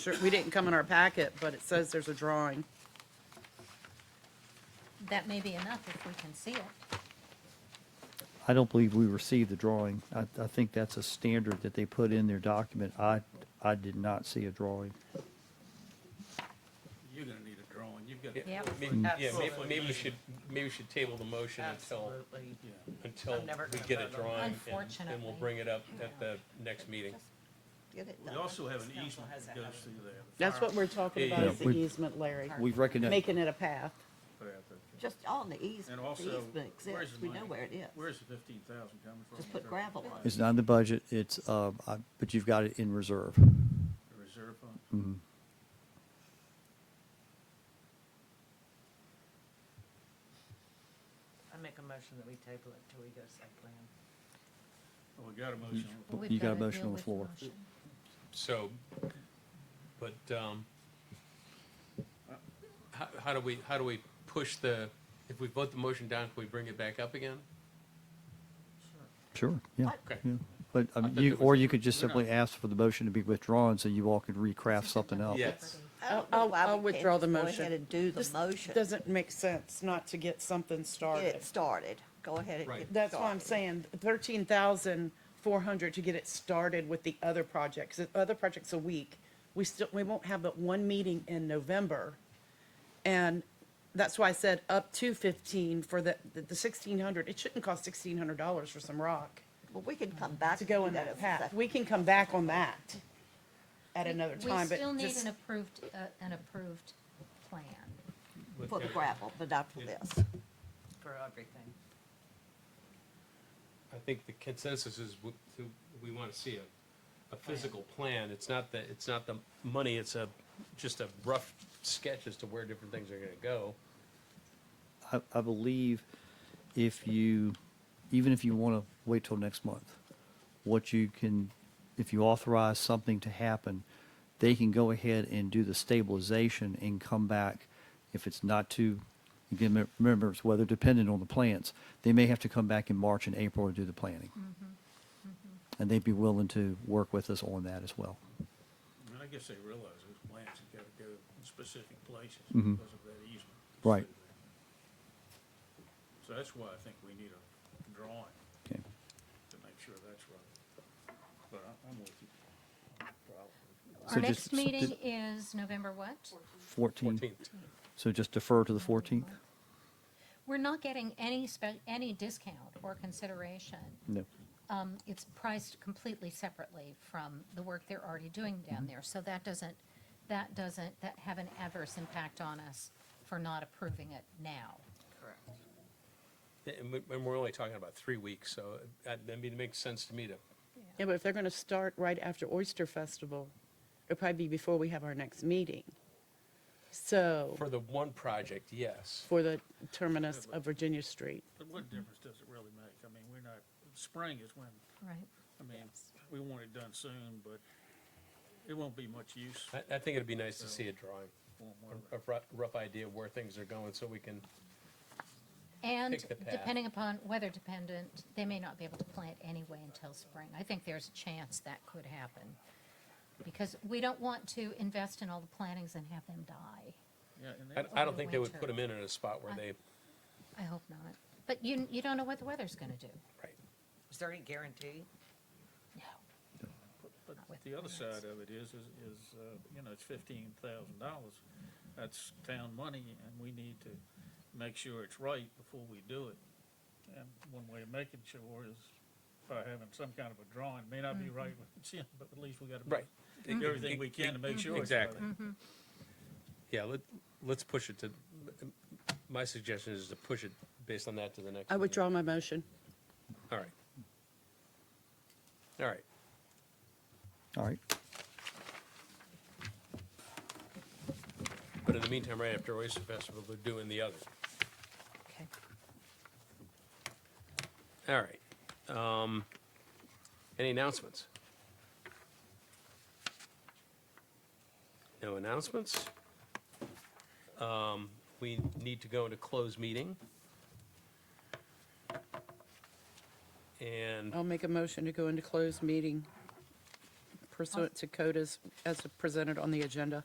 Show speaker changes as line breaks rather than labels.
Sure, we didn't come in our packet, but it says there's a drawing.
That may be enough if we can see it.
I don't believe we received the drawing. I, I think that's a standard that they put in their document. I, I did not see a drawing.
You're gonna need a drawing, you've got.
Yep.
Maybe, yeah, may-
Absolutely.
maybe we should, maybe we should table the motion until,
Absolutely.
until
I'm never
we
gonna
get a
vote on
drawing. and- And
Unfortunately.
we'll bring it up at the next meeting.
Get it
We
done.
also have an easement that goes through there.
That's what we're talking
Yeah,
about,
yeah.
is the
We-
easement, Larry,
We recognize,
making it a path.
Just on the easement,
And
the
also,
easement
where's
exists,
the
we know
money?
where it is.
Where's the fifteen thousand coming from?
Just put gravel on it.
it's not in the budget, it's, uh, I- but you've got it in reserve.
The reserve fund?
I make a motion that we table it till we go site plan.
Well, we got a motion.
Well, we've
You got a
gotta deal
motion on the
with
floor.
motion.
So, but, um, how, how do we, how do we push the, if we vote the motion down, can we bring it back up again?
Sure, yeah.
Okay.
yeah. But,
I
um,
thought
you,
there was-
or you could just
we're not-
simply ask for the motion to be withdrawn so you all could recraft something else.
Yes.
Oh, I don't
I'll-
know why
I'll
we can't
withdraw the
just Go
motion.
ahead and do the
This
motion, get
Doesn't make sense not to get something started.
it started, go ahead and get it started.
Right.
That's what I'm saying, thirteen thousand four hundred to get it started with the other projects, the other project's a week. We still, we won't have but one meeting in November. And that's why I said up to fifteen for the, the sixteen hundred, it shouldn't cost sixteen hundred dollars for some rock
But we can come back
to
to
go in
that
that
as a
path.
second.
We can come back on that at
We-
another time, but
We still need
just-
an approved, uh, an approved plan.
But
For the
there-
gravel, but not for
Yeah.
this.
For everything.
I think the consensus is w- to- we want to see a, a physical plan. It's not the, it's not the money, it's a, just a rough sketch as to where different things are going to go.
I, I believe if you, even if you want to wait till next month, what you can, if you authorize something to happen, they can go ahead and do the stabilization and come back if it's not too, again, me- remember, it's weather dependent on the plants. They may have to come back in March and April and do the planning.
Mm-hmm.
And they'd be willing to work with us on that as well.
I mean, I guess they realize those plants have gotta go in specific places
Mhm.
because of that easement.
Right.
So that's why I think we need a drawing
Okay.
to make sure that's right. But I- I'm with you. Probably.
So
Our next
just-
meeting is November what?
14,
14th.
so just defer to the 14th?
We're not getting any spe, any discount or consideration.
No.
Um, it's priced completely separately from the work they're already doing
Mm-hmm.
down there. So that doesn't, that doesn't, that have an adverse impact on us for not approving it now.
Correct.
And we- and we're only talking about three weeks, so uh, I mean, it makes sense to me to
Yeah, but if they're gonna start right after Oyster Festival, it'll probably be before we have our next meeting. So,
For the one project, yes.
for the terminus of Virginia Street.
But what difference does it really make? I mean, we're not, spring is when,
Right.
I mean, we want it done soon, but it won't be much use.
I, I think it'd be nice to see a drawing,
Won't work.
a- a rough, rough idea of where things are going, so we can,
And
Pick the path.
depending upon weather dependent, they may not be able to plant anyway until spring. I think there's a chance that could happen. Because we don't want to invest in all the plantings and have them die.
Yeah, and
I,
that-
I don't think they would put them in in a spot where they,
I hope not. But you, you don't know what the weather's gonna do.
right.
Is there any guarantee?
No.
But
Not with
the other
finance.
side of it is, is, is, uh, you know, it's fifteen thousand dollars. That's town money, and we need to make sure it's right before we do it. And one way of making sure is by having some kind of a drawing. May not be
Mm-hmm.
right with Jim, but at least we gotta
Right.
do everything we can to
Mm-hmm.
make sure it's right.
Exactly. Yeah, let, let's push it to, my suggestion is to push it based on that to the next.
I
meeting.
withdraw my motion.
All right. All right.
All right.
But in the meantime, right after Oyster Festival, they're doing the other.
Okay.
All right. Um, Any announcements? No announcements? Um, We need to go into closed meeting. And
I'll make a motion to go into closed meeting pursuant to code as, as presented on the agenda.